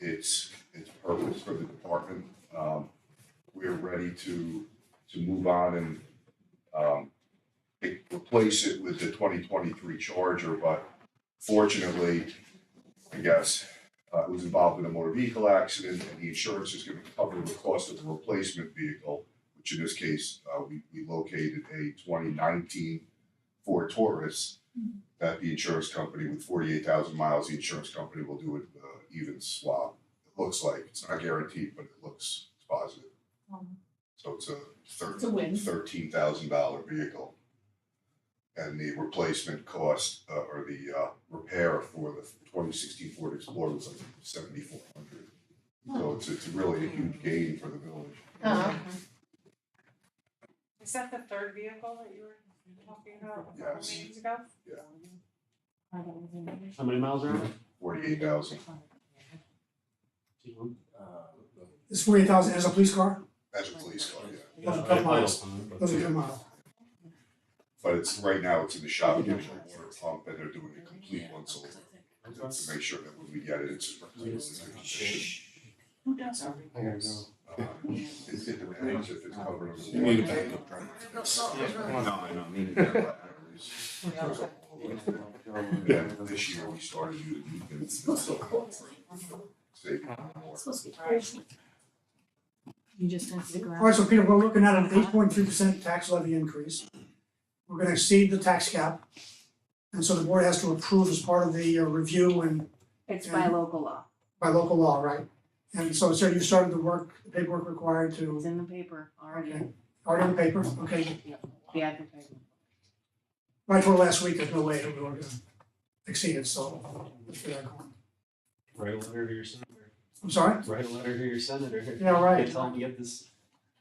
its, its purpose for the department. Um, we are ready to, to move on and, um, re- replace it with the twenty twenty-three Charger, but fortunately, I guess, uh, it was involved in a motor vehicle accident and the insurance is gonna cover the cost of the replacement vehicle, which in this case, uh, we, we located a twenty nineteen Ford Taurus that the insurance company with forty-eight thousand miles, the insurance company will do an uh, even swap. It looks like, it's not guaranteed, but it looks positive. Um, So it's a It's a win. thirteen thousand dollar vehicle. And the replacement cost, uh, or the, uh, repair for the twenty sixteen Ford Explorer was like seventy-four hundred. So it's, it's really a huge gain for the village. Uh-huh. Is that the third vehicle that you were talking about a couple Yes. meetings ago? I don't remember. How many miles are Forty-eight thousand, on? This forty-eight thousand as a police car, as a police car, yeah. Doesn't come miles. doesn't come out. But it's, right now, it's in the shop, getting a water pump, and they're doing a complete once over. to make sure that when we get it, it's. Who does our I gotta go. Uh, It's in the range if it's covered. under the You need a warranty. backup No, I don't need it. Yeah, this year we started using it, it's been so long for sake of more. supposed to be crazy? You just have to go out. Alright, so Peter, we're looking at an eight point three percent tax levy increase. We're gonna exceed the tax cap. And so the board has to approve as part of the uh, review and It's by local law. by local law, right? And so, sir, you started the work, the paperwork required It's to, in the paper already. okay, already on paper, okay. The advertisement. Right for last week, there's no way that we were gonna exceed it, so. let's get that going. Write a letter to your senator. I'm sorry? Write a letter to your senator. Yeah, right. Tell him to get this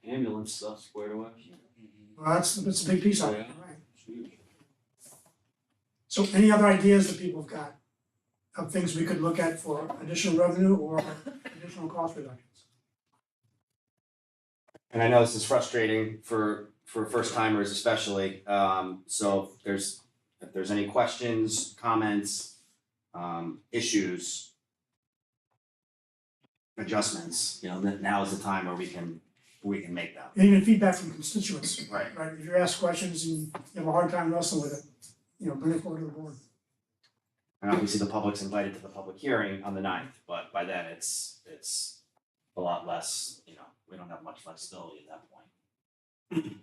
ambulance stuff squared away. Well, that's, that's a big piece of it, Yeah. right? So any other ideas that people have got of things we could look at for additional revenue or additional cost reductions? And I know this is frustrating for for first timers especially, um so if there's if there's any questions, comments, um issues. Adjustments, you know, that now is the time where we can we can make them. And even feedback from constituents, Right. right? If you ask questions and you have a hard time wrestling with it, you know, bring it forward to the board. And obviously the public's invited to the public hearing on the ninth, but by then it's it's a lot less, you know, we don't have much flexibility at that point.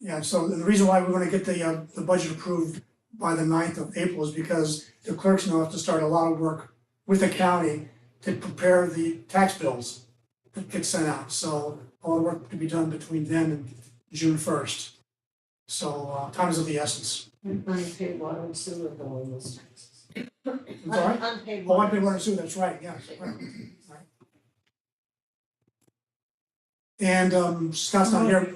Yeah, so the reason why we wanna get the, uh, the budget approved by the 9th of April is because the clerks now have to start a lot of work with the county to prepare the tax bills that get sent out, so all the work to be done between then and June first. So, uh, time is of the essence. Unpaid water and sewer bill in those taxes. I'm sorry? Unpaid Oh, I did want to sue, that's right, yes, right, right. And um, Scott's not here,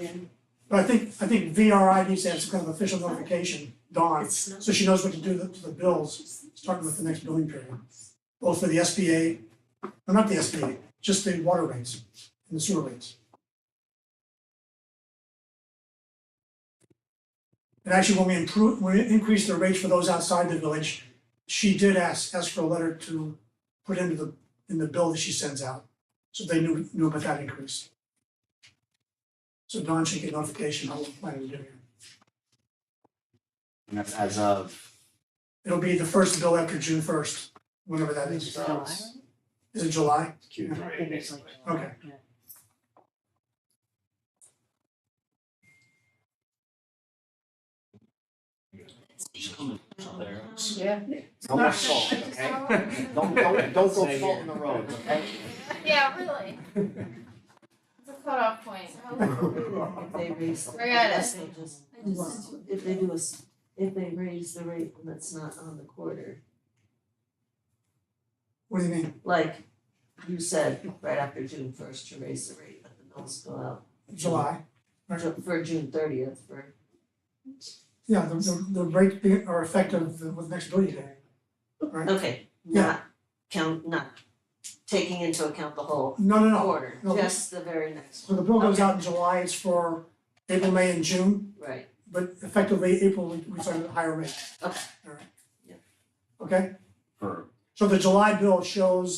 but I think, I think VRI needs to have some kind of official notification, Dawn, so she knows what to do to the bills, starting with the next billing period. Both for the SBA, no, not the SBA, just the water rates and the sewer rates. And actually, when we improve, when we increased the rates for those outside the village, she did ask, ask for a letter to put into the, in the bill that she sends out, so they knew, knew about that increase. So Don should get notification how we're planning to do it. And that's as of It'll be the first bill after June first, whenever that is. Is it July? Q three I basically. think it's like. Okay. There. Yeah. Don't let salt, okay? Don't, don't, don't go salt in the road, okay? Yeah, really. It's a cutoff point. If they raise, the- Forget it. if they just, if they do a, s- if they raise the rate and that's not on the quarter, What do you mean? like you said, right after June first to raise the rate, but the bills go out July? for- for June thirtieth for. Yeah, the, the, the rate be- are effective with next bill day. Right? Okay, not count, not taking into account the whole No, no, no. quarter, No. just the very next So one, the bill goes out in July, it's for April, May, and June, right? but effectively April, we- we started at a higher rate. Okay. All right. Yeah. Okay? For So the July bill shows